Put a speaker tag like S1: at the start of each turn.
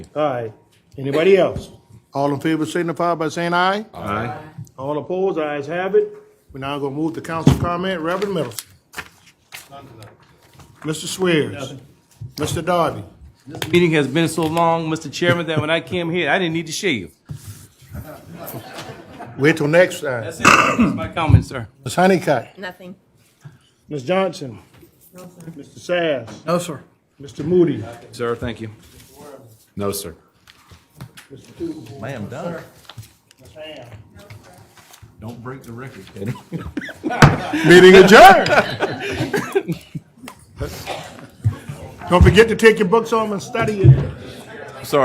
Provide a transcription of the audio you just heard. S1: Aye. Anybody else?
S2: All in favor signify by saying aye.
S1: All opposed, ayes have it.
S2: We're now gonna move to council comment, Reverend Middleton. Mr. Swears. Mr. Darby.
S3: Meeting has been so long, Mr. Chairman, that when I came here, I didn't need to shave.
S2: Wait till next time.
S3: That's it. That's my comment, sir.
S2: Ms. Honeycutt.
S4: Nothing.
S1: Ms. Johnson? Mr. Sass?
S5: No, sir.
S1: Mr. Moody?
S3: Sir, thank you.
S6: No, sir.
S5: Ma'am, done.
S1: Ms. Ham?
S6: Don't break the record, Kenny.
S2: Meeting adjourned. Don't forget to take your books home and study it.